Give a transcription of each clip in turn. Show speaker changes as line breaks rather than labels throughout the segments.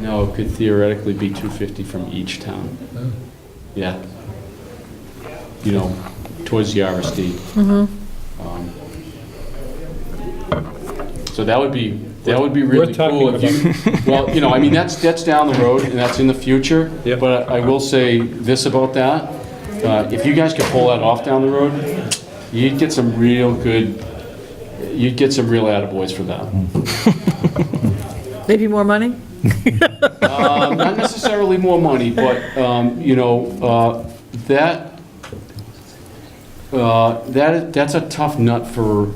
No, it could theoretically be 250 from each town. Yeah. You know, towards the RSD. Um, So that would be, that would be really
talking
cool if you, well, you know, I mean, that's, that's down the road and that's in the future.
Yep.
But I will say this about that, uh, if you guys could pull that off down the road, you'd get some real good, you'd get some real attaboys for that.
Maybe more money?
Um, Not necessarily more money, but, um, you know, uh, that, uh, that, that's a tough nut for,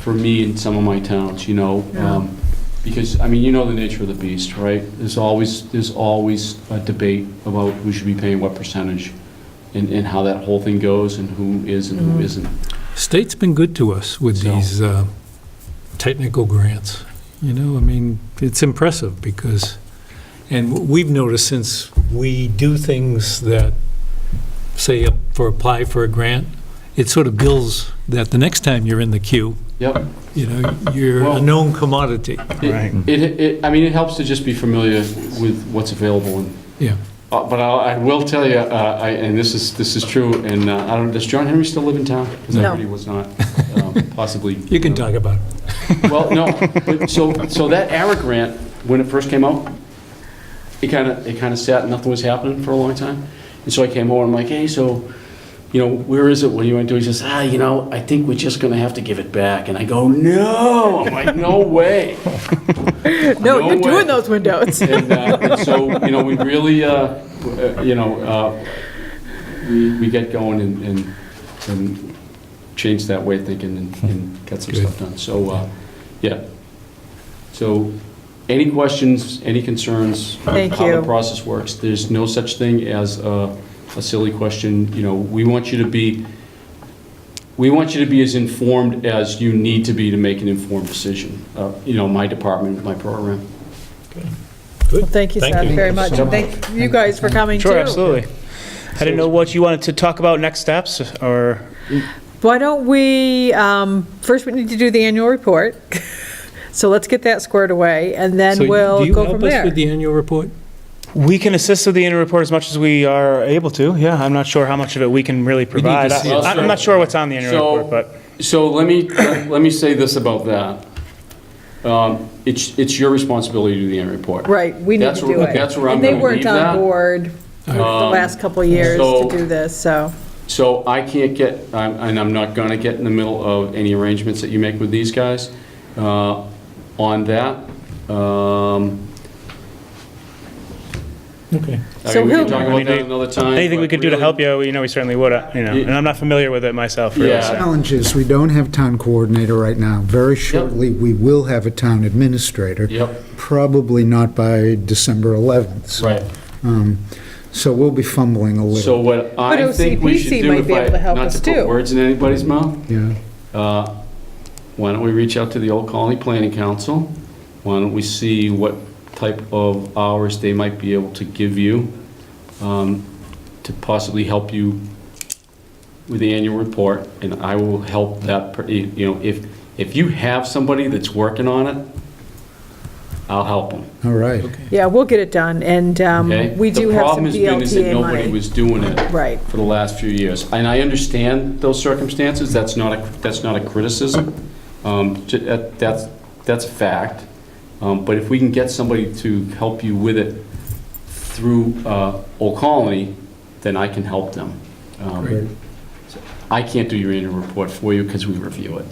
for me and some of my towns, you know? um, Because, I mean, you know the nature of the beast, right? There's always, there's always a debate about who should be paying what percentage and, and how that whole thing goes and who is and who isn't.
State's been good to us with
So-
these uh, technical grants, you know, I mean, it's impressive because, and we've noticed since we do things that, say, up for apply for a grant, it sort of builds that the next time you're in the queue,
Yep.
you know, you're a
Well-
known commodity,
Right.
It, it- it, I mean, it helps to just be familiar with what's available and
yeah.
Uh, But I'll- I will tell you, uh, I- and this is, this is true, and uh, I don't, does John Henry still live in town? Because I
No.
heard he was not, um, possibly.
You can talk about it.
Well, no, but so, so that ARA grant, when it first came out, it kind of, it kind of sat, nothing was happening for a long time. And so I came over, I'm like, hey, so, you know, where is it, what do you want to do? He says, ah, you know, I think we're just going to have to give it back. And I go, no, I'm like, no way.
No,
No
you're
way.
doing those windows.
And, uh, and so, you know, we really, uh, w- uh, you know, uh, we, we get going and, and, and change that way of thinking and, and get some
Good.
stuff done. So, uh, yeah. So, any questions, any concerns?
Thank
How
you.
the process works. There's no such thing as a, a silly question. You know, we want you to be, we want you to be as informed as you need to be to make an informed decision. Uh, you know, my department, my program.
Well, Thank you, Seth, very much. And thank you guys for coming, too.
Sure, absolutely. I didn't know what you wanted to talk about next steps, or,
Why don't we, um, first we need to do the annual report. So let's get that squared away, and
So
then we'll go
Do
from
you help us
there.
with the annual report?
we can assist with the interim report as much as we are able to, yeah. I'm not sure how much of it we can really provide.
see
I-
it.
I'm not sure what's on the interim
So-
report, but,
So let me, let me say this about that. Um, It's, it's your responsibility to do the end report.
Right, we need
That's
to
where-
do it.
that's where I'm
And they
gonna
weren't
leave
on
that.
board the
Um,
last couple of years
so-
to do this, so,
So I can't get, I'm- and I'm not going to get in the middle of any arrangements that you make with these guys uh, on that. Um,
Okay.
I
So
mean, we can
he'll-
talk
I
about
mean,
that
they-
another time.
anything we
but
could do to
really-
help you, you know, we certainly would, uh, you know,
Yeah.
and I'm not familiar with it myself, really.
Yeah.
so.
challenge is, we don't have town coordinator right now. Very shortly, we will have a town administrator.
Yep.
Probably not by December 11th. so,
Right.
um, So we'll be fumbling a
So
little.
what I
But
think we should
OCPC
do,
might
if
be
I,
able to help
not
us
to put
too.
words in anybody's mouth,
Yeah.
Uh, Why don't we reach out to the Old Colony Planning Council? Why don't we see what type of hours they might be able to give you um, to possibly help you with the annual report? And I will help that, per- you you know, if, if you have somebody that's working on it, I'll help them,
All right.
yeah, we'll get it done, and um,
okay?
we do
The
have some
problem has been is that
DLTA
nobody
money.
was doing it
Right,
for the last few years. And I understand those circumstances, that's not, a that's not a criticism, Um, j- that- that's, that's a fact. Um, But if we can get somebody to help you with it through uh, Old Colony, then I can help them. Um,
Great.
I can't do your annual report for you because we review it.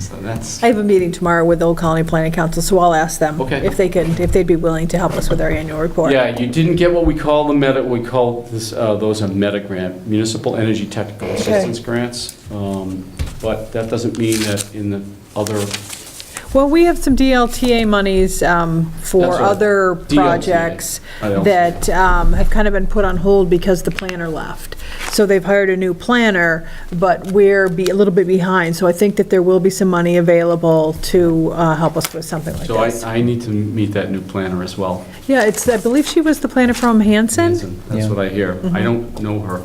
So that's,
I have a meeting tomorrow with the Old Colony Planning Council, so I'll ask them
Okay.
if they can, if they'd be willing to help us with our annual report.
yeah, you didn't get what we call the meta, we call this, uh, those a meta grant, Municipal Energy Technical Assistance Grants. Um, But that doesn't mean that in the other
Well, we have some DLTA monies um,
That's
for
all.
other
DLTA.
projects
I don't-
that um, have kind of been put on hold because the planner left. So they've hired a new planner, but we're be, a little bit behind, so I think that there will be some money available to uh, help us with something like
So I,
this.
I need to meet that new planner as well.
Yeah, it's, I believe she was the planner from Hanson.
Hanson, That's what I hear. I don't know her.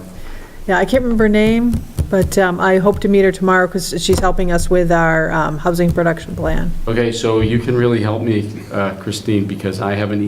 Yeah, I can't remember her name, but um, I hope to meet her tomorrow because she's helping us with our um, housing production plan.
Okay, so you can really help me, uh, Christine, because I haven't